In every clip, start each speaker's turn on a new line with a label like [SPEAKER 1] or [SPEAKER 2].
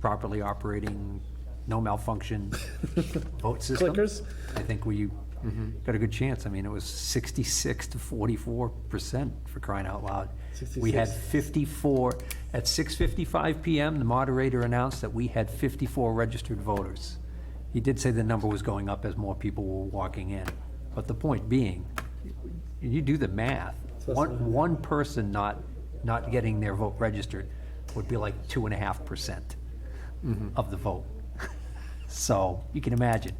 [SPEAKER 1] properly operating, no malfunction vote system.
[SPEAKER 2] Clickers?
[SPEAKER 1] I think we got a good chance. I mean, it was 66 to 44 percent for crying out loud. We had 54, at 6:55 PM, the moderator announced that we had 54 registered voters. He did say the number was going up as more people were walking in. But the point being, you do the math,
[SPEAKER 2] that's what I
[SPEAKER 1] one, one person not, not getting their vote registered would be like 2.5% of the vote. So you can imagine,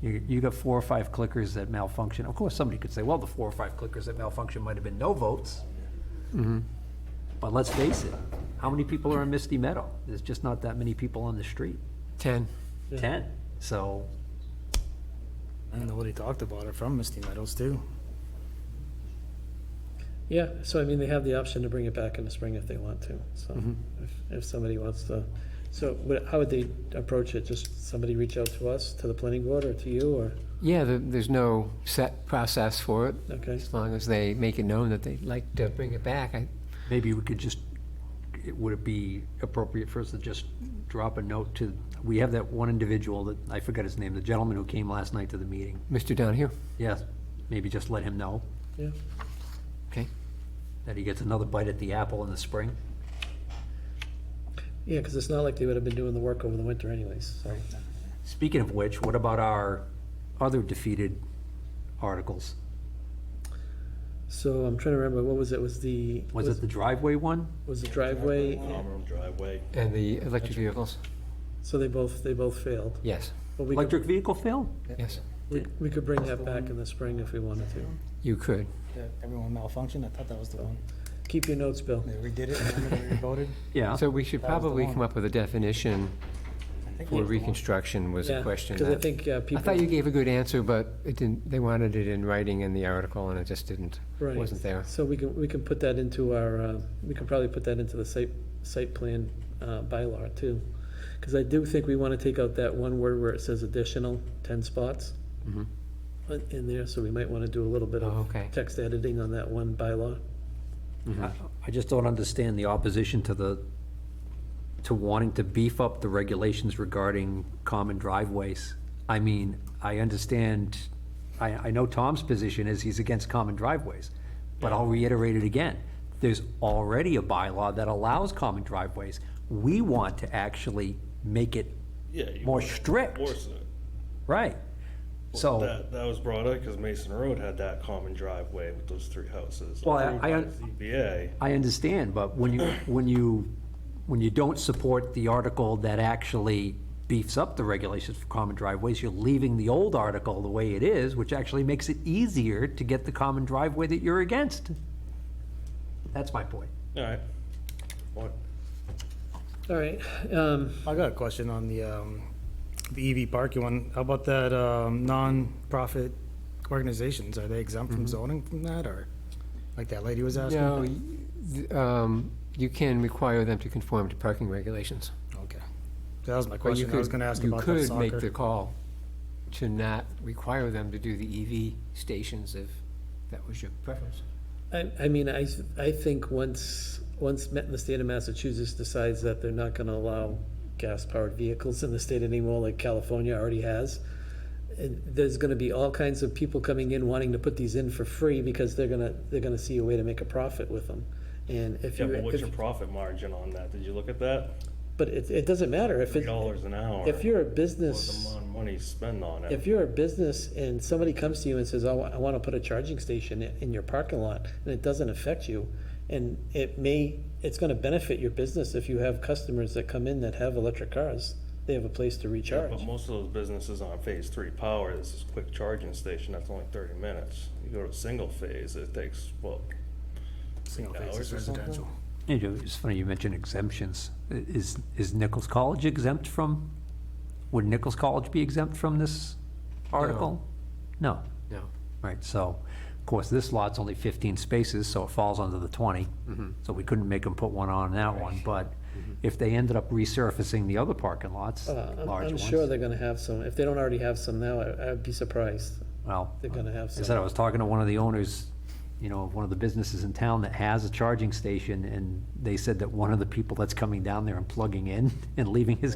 [SPEAKER 1] you, you got four or five clickers that malfunction. Of course, somebody could say, well, the four or five clickers that malfunction might have been no votes. But let's face it, how many people are in Misty Meadow? There's just not that many people on the street.
[SPEAKER 3] 10.
[SPEAKER 1] Ten. So,
[SPEAKER 4] I don't know what he talked about, or from Misty Meadows too.
[SPEAKER 2] Yeah, so I mean, they have the option to bring it back in the spring if they want to, so
[SPEAKER 3] Mm-hmm.
[SPEAKER 2] if, if somebody wants to. So what, how would they approach it? Just somebody reach out to us, to the planning board or to you or,
[SPEAKER 3] Yeah, there- there's no set process for it,
[SPEAKER 2] okay?
[SPEAKER 3] as long as they make it known that they'd like to bring it back. I-
[SPEAKER 1] Maybe we could just, it- would it be appropriate for us to just drop a note to, we have that one individual that, I forgot his name, the gentleman who came last night to the meeting.
[SPEAKER 3] Mr. Donahue?
[SPEAKER 1] Yes, maybe just let him know
[SPEAKER 2] Yeah,
[SPEAKER 3] Okay.
[SPEAKER 1] that he gets another bite at the apple in the spring.
[SPEAKER 2] yeah, because it's not like they would have been doing the work over the winter anyways, so.
[SPEAKER 1] Speaking of which, what about our other defeated articles?
[SPEAKER 2] So I'm trying to remember, what was it? Was the,
[SPEAKER 1] Was it the driveway one?
[SPEAKER 2] was the driveway?
[SPEAKER 5] driveway.
[SPEAKER 3] And the electric vehicles?
[SPEAKER 2] So they both, they both failed.
[SPEAKER 3] Yes,
[SPEAKER 2] But we could,
[SPEAKER 1] Electric vehicle fail?
[SPEAKER 3] yes,
[SPEAKER 2] we we could bring that back in the spring if we wanted to.
[SPEAKER 3] you could.
[SPEAKER 4] That Everyone malfunctioned. I thought that was the one.
[SPEAKER 2] Keep your notes, Bill.
[SPEAKER 4] They redid it. Remember they voted.
[SPEAKER 1] Yeah.
[SPEAKER 3] So we should
[SPEAKER 4] That was the
[SPEAKER 3] probably
[SPEAKER 4] one.
[SPEAKER 3] come up with a definition
[SPEAKER 4] I think
[SPEAKER 3] for
[SPEAKER 4] that's the one.
[SPEAKER 3] reconstruction was a question.
[SPEAKER 2] Because I
[SPEAKER 3] that-
[SPEAKER 2] think uh,
[SPEAKER 3] I
[SPEAKER 2] people.
[SPEAKER 3] thought you gave a good answer, but it didn't, they wanted it in writing in the article, and it just didn't,
[SPEAKER 2] Right.
[SPEAKER 3] wasn't there.
[SPEAKER 2] So we can, we can put that into our, uh, we can probably put that into the site, site plan uh, bylaw too. Because I do think we want to take out that one word where it says additional ten spots in- in there, so we might want to do a little bit
[SPEAKER 3] Mm-hmm. Oh,
[SPEAKER 2] of
[SPEAKER 3] okay.
[SPEAKER 2] text editing on that one bylaw.
[SPEAKER 1] I I just don't understand the opposition to the, to wanting to beef up the regulations regarding common driveways. I mean, I understand, I, I know Tom's position is he's against common driveways, but I'll reiterate it again. There's already a bylaw that allows common driveways. We want to actually make it
[SPEAKER 5] Yeah. you
[SPEAKER 1] more
[SPEAKER 5] want to
[SPEAKER 1] strict.
[SPEAKER 5] enforce it.
[SPEAKER 1] Right. So,
[SPEAKER 5] That, that was brought up because Mason Road had that common driveway with those three houses.
[SPEAKER 1] Well, I-
[SPEAKER 5] approved
[SPEAKER 1] I
[SPEAKER 5] by
[SPEAKER 1] un-
[SPEAKER 5] ZBA.
[SPEAKER 1] I understand, but when you, when you, when you don't support the article that actually beefs up the regulations for common driveways, you're leaving the old article the way it is, which actually makes it easier to get the common driveway that you're against. That's my point.
[SPEAKER 5] All right. What?
[SPEAKER 2] All right, um,
[SPEAKER 4] I got a question on the um, the EV parking one. How about that um, non-profit organizations? Are they exempt
[SPEAKER 3] Mm-hmm.
[SPEAKER 4] from zoning from that, or like that lady was asking?
[SPEAKER 3] No, y- th- um, you can require them to conform to parking regulations.
[SPEAKER 4] Okay. That was my
[SPEAKER 3] But you
[SPEAKER 4] question. I was
[SPEAKER 3] could-
[SPEAKER 4] going to ask
[SPEAKER 3] you
[SPEAKER 4] about the
[SPEAKER 3] could make the
[SPEAKER 4] soccer.
[SPEAKER 3] call to not require them to do the EV stations if that was your preference.
[SPEAKER 2] I, I mean, I, s- I think once, once Ma- the state of Massachusetts decides that they're not gonna allow gas-powered vehicles in the state anymore, like California already has, and there's gonna be all kinds of people coming in wanting to put these in for free because they're gonna, they're gonna see a way to make a profit with them. And if
[SPEAKER 5] Yeah,
[SPEAKER 2] you,
[SPEAKER 5] but what's your
[SPEAKER 2] if-
[SPEAKER 5] profit margin on that? Did you look at that?
[SPEAKER 2] but it, it doesn't matter if
[SPEAKER 5] Three
[SPEAKER 2] it,
[SPEAKER 5] dollars an hour.
[SPEAKER 2] if you're a
[SPEAKER 5] was
[SPEAKER 2] business.
[SPEAKER 5] The amount of money spent on it.
[SPEAKER 2] If you're a business and somebody comes to you and says, "I wa- I want to put a charging station i- in your parking lot," and it doesn't affect you, and it may, it's going to benefit your business if you have customers that come in that have electric cars, they have a place to
[SPEAKER 5] But
[SPEAKER 2] recharge.
[SPEAKER 5] most of those businesses on phase three power, this is quick charging station, that's only thirty minutes. You go to single phase, it takes, well,
[SPEAKER 4] Single phase
[SPEAKER 5] hours
[SPEAKER 4] is
[SPEAKER 5] or something?
[SPEAKER 4] residential.
[SPEAKER 1] You know, It's funny you mentioned exemptions. I- Is, is Nichols College exempt from, would Nichols College be exempt from this article? No,
[SPEAKER 3] No.
[SPEAKER 1] right, so, of course, this lot's only 15 spaces, so it falls under the 20.
[SPEAKER 2] Mm-hmm.
[SPEAKER 1] So we couldn't make them put one on that one, but if they ended up resurfacing the other parking lots,
[SPEAKER 2] Uh, I'm-
[SPEAKER 1] large
[SPEAKER 2] I'm sure
[SPEAKER 1] ones,
[SPEAKER 2] they're going to have some, if they don't already have some now, I- I'd be surprised.
[SPEAKER 1] well.
[SPEAKER 2] They're going to
[SPEAKER 1] I
[SPEAKER 2] have
[SPEAKER 1] said, I
[SPEAKER 2] some.
[SPEAKER 1] was talking to one of the owners, you know, of one of the businesses in town that has a charging station, and they said that one of the people that's coming down there and plugging in and leaving his